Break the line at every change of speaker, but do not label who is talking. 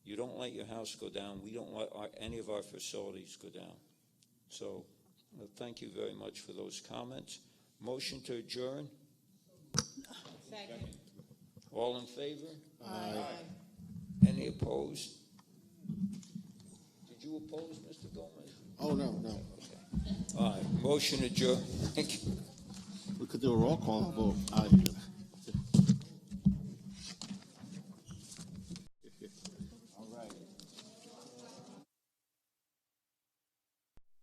don't let your house go down, we don't let our, any of our facilities go down. So, uh, thank you very much for those comments. Motion to adjourn,
Second.
all in favor? Any opposed? Did you oppose, Mr. Gomez?
Oh, no, no.
All right, motion adjourned. Thank you.
We could do a roll call vote out here.